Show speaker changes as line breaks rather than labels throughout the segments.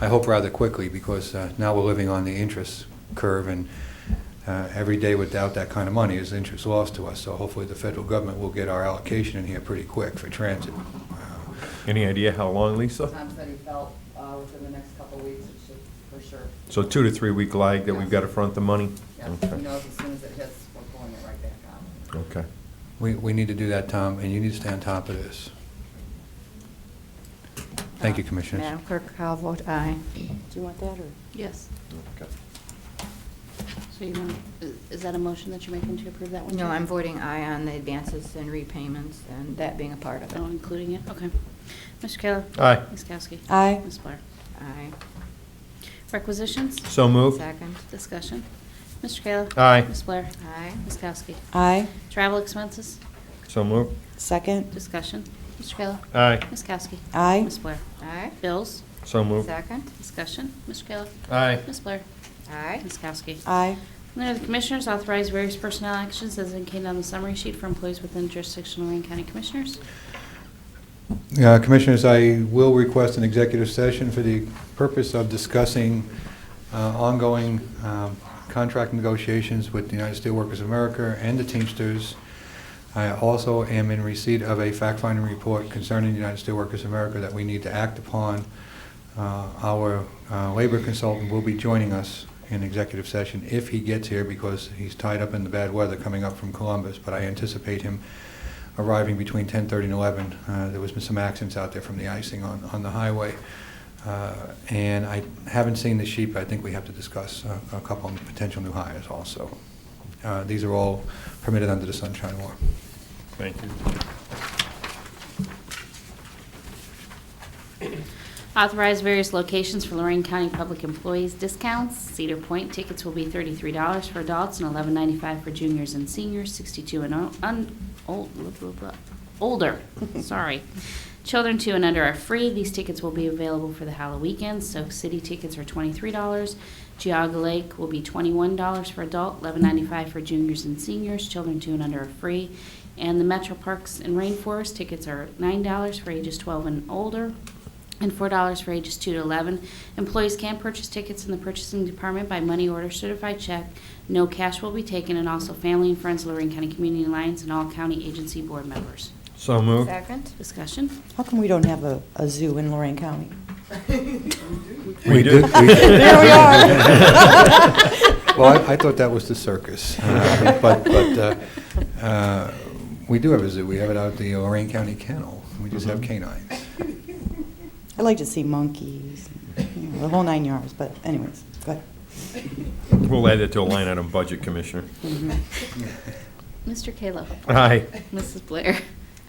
I hope rather quickly, because uh, now we're living on the interest curve, and uh, every day without that kind of money is interest lost to us. So hopefully, the federal government will get our allocation in here pretty quick for transit. Uh,
Any idea how long, Lisa?
Tom said he felt uh, within the next couple of weeks, it should, for sure.
So two to three week lag that we've got to front the money?
Yeah, he
Okay.
knows as soon as it hits, we're pulling it right back out.
Okay.
We, we need to do that, Tom, and you need to stay on top of this. Thank
Uh,
you, Commissioners.
Madam Clerk, I'll vote aye. Do you want that, or?
Yes.
Okay.
So you want, is that a motion that you're making to approve that one?
No,
too?
I'm voting aye on the advances and repayments and that being a part of
Oh,
it.
including it, okay. Mr. Kayla?
Aye.
Ms. Kowski?
Aye.
Ms. Blair?
Aye.
Requisitions?
So moved.
Second.
Discussion. Mr. Kayla?
Aye.
Ms. Blair?
Aye.
Ms. Kowski?
Aye.
Travel expenses?
So moved.
Second.
Discussion. Mr. Kayla?
Aye.
Ms. Kowski?
Aye.
Ms. Blair?
Aye.
Bills?
So moved.
Second.
Discussion. Mr. Kayla?
Aye.
Ms. Blair?
Aye.
Ms. Kowski?
Aye.
Under the Commissioners, authorize various personnel actions as indicated on the summary sheet for employees within jurisdiction of Lorraine County Commissioners.
Uh, Commissioners, I will request an executive session for the purpose of discussing uh, ongoing um, contract negotiations with the United Steelworkers of America and the Teamsters. I also am in receipt of a fact-finding report concerning the United Steelworkers of America that we need to act upon. Uh, Our uh, labor consultant will be joining us in executive session if he gets here because he's tied up in the bad weather coming up from Columbus, but I anticipate him arriving between 10:30 and 11. Uh, There was some accidents out there from the icing on, on the highway. Uh, And I haven't seen the sheet, but I think we have to discuss uh, a couple of potential new hires also. Uh, These are all permitted under the sunshine law.
Thank you.
Authorize various locations for Lorraine County public employees discounts. Cedar Point tickets will be thirty-three dollars for adults and eleven ninety-five for juniors and seniors, sixty-two and o- un, old, blah, blah, blah, older, sorry. Children two and under are free. These tickets will be available for the Halloween weekend. Soak City tickets are twenty-three dollars. Geauga Lake will be twenty-one dollars for adult, eleven ninety-five for juniors and seniors. Children two and under are free. And the Metro Parks and Rainforest tickets are nine dollars for ages twelve and older and four dollars for ages two to eleven. Employees can purchase tickets in the purchasing department by money order certified check. No cash will be taken, and also family and friends, of Lorraine County Community Alliance, and all county agency board members.
So moved.
Second.
Discussion.
How come we don't have a, a zoo in Lorraine County?
We do.
There we are.
Well, I- I thought that was the circus. Uh, But, but uh, uh, we do have a zoo. We have it out at the Lorraine County Kennel. We just have
Mhm.
canines.
Mm-hmm.
I like to see monkeys, you know, the whole nine yards, but anyways, go ahead. Mm-hmm.
We'll add that to a line item budget, Commissioner.
Mr. Kayla.
Aye.
Mrs. Blair.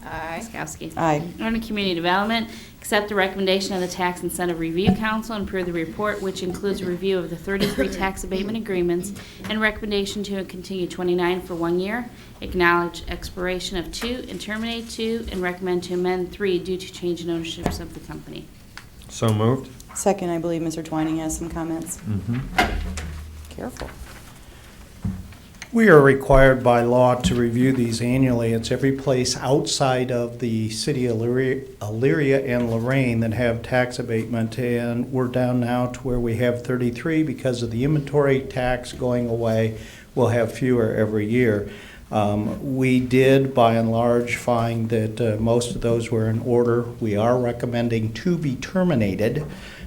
Aye.
Ms. Kowski.
Aye.
Under Community Development, accept the recommendation of the Tax Incentive Review Council and approve the report, which includes a review of the 33 tax abatement agreements and recommendation to continue 29 for one year, acknowledge expiration of two and terminate two, and recommend to amend three due to change in ownerships of the company.
So moved. Mm-hmm.
Second, I believe Mr. Twining has some comments. Careful.
We are required by law to review these annually. It's every place outside of the city of Elyria Elyria and Lorraine that have tax abatement. And we're down now to where we have 33 because of the inventory tax going away. We'll have fewer every year. Um, We did, by and large, find that uh, most of those were in order. We are recommending to be terminated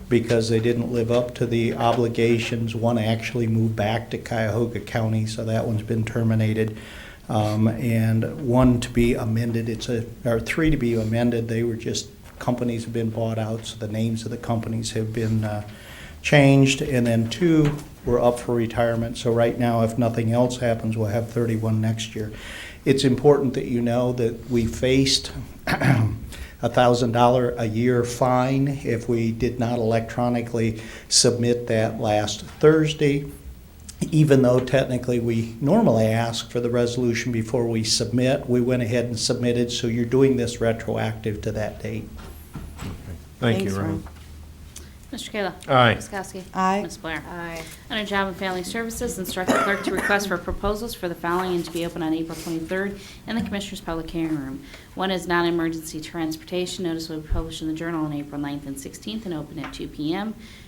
because they didn't live up to the obligations. One actually moved back to Cuyahoga County, so that one's been terminated. Um, And one to be amended, it's a, or three to be amended, they were just, companies have been bought out, so the names of the companies have been uh, changed. And then two were up for retirement, so right now, if nothing else happens, we'll have 31 next year. It's important that you know that we faced a thousand dollar a year fine if we did not electronically submit that last Thursday. Even though technically we normally ask for the resolution before we submit, we went ahead and submitted, so you're doing this retroactive to that date.
Thank you,
Thanks,
Ron.
Mr. Kayla.
Aye.
Ms. Kowski.
Aye.
Ms. Blair.
Aye.
Under Job and Family Services, instruct the clerk to request for proposals for the following and to be open on April 23rd in the Commissioners' Public Hearing Room. One is non-emergency transportation. Notice will be published in the Journal on April 9th and 16th and open at 2 p.m.